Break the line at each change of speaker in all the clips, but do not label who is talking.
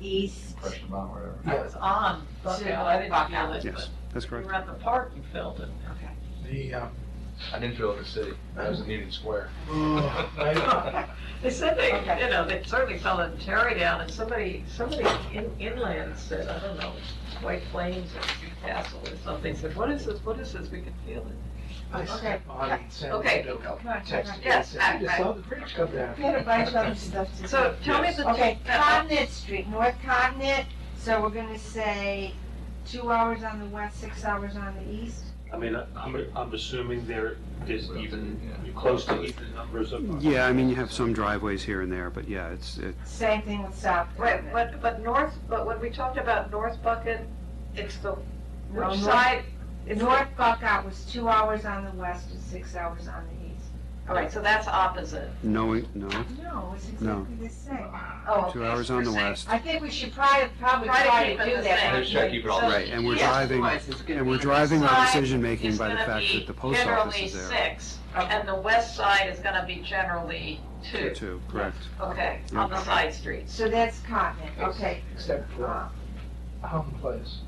east.
Question about whatever.
I was on Buckout. I didn't feel it,
Yes, that's
but we
correct.
were at the park, you felt it.
Okay.
The, uh,
I didn't feel it for city. I was in Union Square.
oh, I-
They said they,
Okay.
you know, they certainly felt it in Tarrytown, and somebody, somebody in inland said, I don't know, White Plains or Newcastle or something, said, what is this, what is this, we can feel it.
I
Okay.
stepped on and sent
Okay.
it to Doco.
Right,
Texted me,
Yes,
said, I just
I-
saw the bridge come down.
We had a bunch of other stuff to do.
So tell me
Yes.
the.
Okay,
uh,
Connet Street, North Connet, so we're gonna say two hours on the west, six hours on the east?
I mean, I'm, I'm assuming there is even, close to even numbers of.
Yeah, I mean, you have some driveways here and there, but yeah, it's, it,
Same thing with South
Right,
Connet.
but, but north, but when we talked about North Bucket, it's the,
No,
which
north-
side? It's north,
North Buckout was two hours on the west and six hours on the east.
all right, so that's opposite.
no, no,
No, it's
No.
exactly the same.
Oh,
two
okay,
hours on the
we're saying-
west.
I think we should probably, probably
Try to
try
keep
to
it
do
the
that.
same.
Let's try to keep it all
So-
Right, and we're
Yes,
driving,
otherwise it's gonna
and
be-
we're driving our
Side
decision-making
is
by the
gonna
fact
be
that the post office is
Generally
there.
six, and the west side is gonna be generally two,
Two, correct.
okay, on the
Yeah.
side streets.
So that's Connet, okay.
Except for
Uh,
Home Place.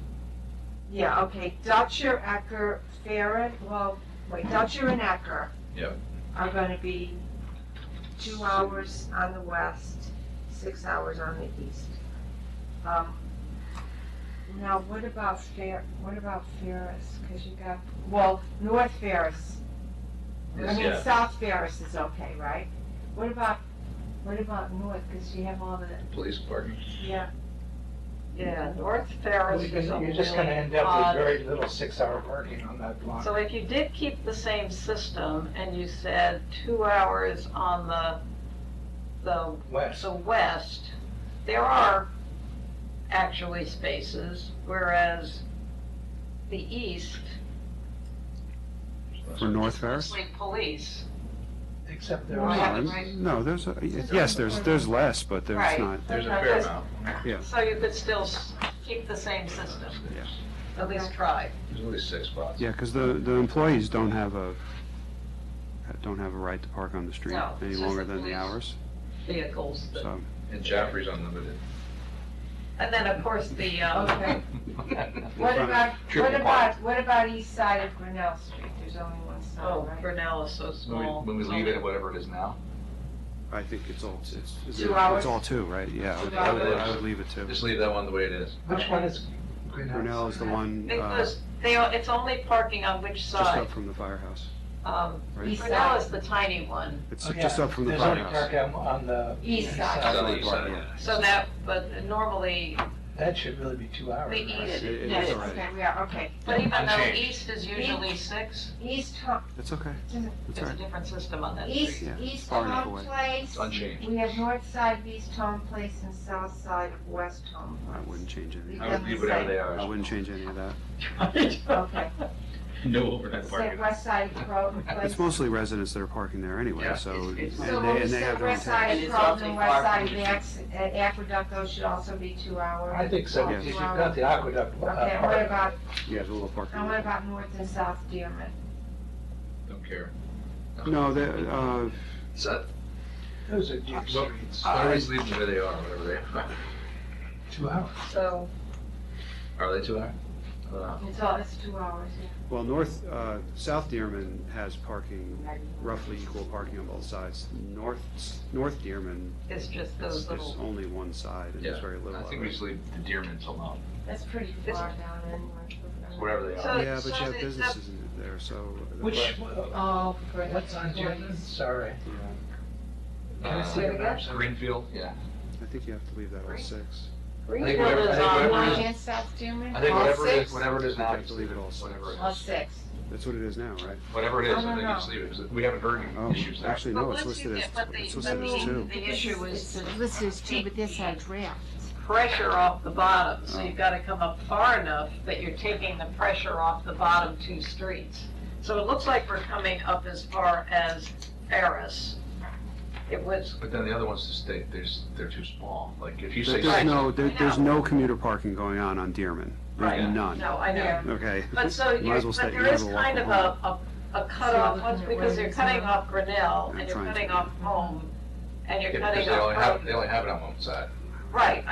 Yeah, okay, Dutcher, Ecker, Farren, well, wait, Dutcher and Ecker.
Yep.
Are gonna be two hours on the west, six hours on the east. Um, Now, what about Fair, what about Ferris, cause you got, well, North Ferris. I
Yes,
mean,
yeah.
South Ferris is okay, right? What about, what about North, cause you have all the,
Police parking.
yeah,
Yeah, North Ferris
Because
is a
You're just gonna end up with
odd.
very little six-hour parking on that block.
So if you did keep the same system, and you said two hours on the, the
West.
the west, there are actually spaces, whereas the east.
For North Ferris?
Mostly police.
Except there
No,
Why
was,
haven't
I'm- no, there's, a- yes, there's, there's less, but there's
Right.
not,
There's a fair amount.
So you could still s- keep the same system.
Yeah.
At least try.
There's at least six spots.
yeah, because the, the employees don't have a, don't have a right to park on the street
No,
any
it's just
longer
the
than the
police.
hours,
Vehicles. that-
so,
And Jaffrey's unlimited.
And then, of course, the, um,
okay. What
Right.
about,
Triple
what about, what about east side of Grinnell Street? There's only one
oh,
side, right?
Brunel is so
When we,
small.
when we
it's
leave
only-
it at whatever it is now,
I think it's all, it's, it's
Two hours?
all two, right, yeah, I would- I would, I would leave it two.
just leave that one the way it is.
which one is Green
Brunel is the one,
It
uh,
goes, they, are- it's only parking on which
just
side?
up from the firehouse,
Um,
right?
East
Brunel
side.
is the tiny one,
It's
Oh, yeah.
just up from the
There's only
firehouse.
park on- on the.
East side.
It's on the
Right,
east side,
yeah.
so that, but normally,
That should really be two hours.
the
right?
east,
It- it
yes.
is all right,
Okay, we are, okay.
But even though
Unchanged.
east is usually six,
East, Hum-
it's okay, it's all
it's a
right.
different system on that
east,
street.
Yeah,
east
far enough
home
away.
place.
It's unchanged.
We have north side of east home place and south side of west home
I
place.
wouldn't change any,
I would leave whatever they
I
are.
wouldn't change any of that.
Okay,
No overnight
so
parking.
west side of Groton place.
It's mostly residents that are parking there anyway,
Yeah.
so, and
It's-
they,
So when we
and they
say
have their own
west
tax.
side
It
of
is
Groton,
awfully
west
far
side
from
of
the-
Ax- uh, Aqueduct, those should also be two hours.
I think so,
Two
because you've got
hours.
the aqueduct. uh,
Okay, and
park.
what about,
Yeah, there's a little parking.
and what about north and south Dearman?
Don't care.
No, they, uh,
So,
Those are deep
Well,
streets,
I always leave them where they are, whatever they are.
two hours.
So,
Are they Uh, two hours? I don't know.
It's all, it's two hours, yeah.
well, north, uh, South Dearman has parking, roughly equal parking on both sides. North, North Dearman
It's just
is,
those
is
little,
only one side and there's
Yeah,
very little
I think
of
we
it.
just leave the Deermans alone,
That's pretty far down anyway.
wherever they
So-
are.
Yeah, but you have
the-
businesses in there, so.
Which,
Oh, for the
what's on Dearman?
employees.
Sorry.
Yeah,
Can I see
Uh,
the maps?
Greenfield, yeah.
I think you have to leave that all
Right.
six.
Greenfield
whatever- I
is
think
on,
whatever
North
one-
and South Dearman?
I think
All
whatever it
six?
is, whatever it is now,
Okay,
just
leave it all six.
Whatever it
All
is.
six.
That's what it is now, right?
Whatever it
I
is, I
don't
think you
know.
just leave it, 'cause we haven't heard
Oh,
any issues there.
actually,
but
no, it's
once you
listed as,
get, but the,
it's
the
listed as
meeting,
two.
the issue is to
This is two, but this had draft.
pressure off the bottom, so
Oh.
you've gotta come up far enough that you're taking the pressure off the bottom two streets. So it looks like we're coming up as far as Ferris. It was,
But then the other ones just, they, they're, s- they're too small. Like, if you say
There's
six,
no, there- there's no commuter parking going on on Dearman. There's
Right.
none,
no, I know,
Yeah.
okay?
But so,
Might
you're,
as well stay-
but
might
there
as
is
well walk
kind of
home.
a, a, a cutoff,
So,
once,
where
because you're
it's
cutting
at.
off Grinnell,
I'm
and you're
trying to
cutting
figure
off Home, and you're
yeah, because
cutting
they only
off
have,
Home.
they only have it on one side.
Right,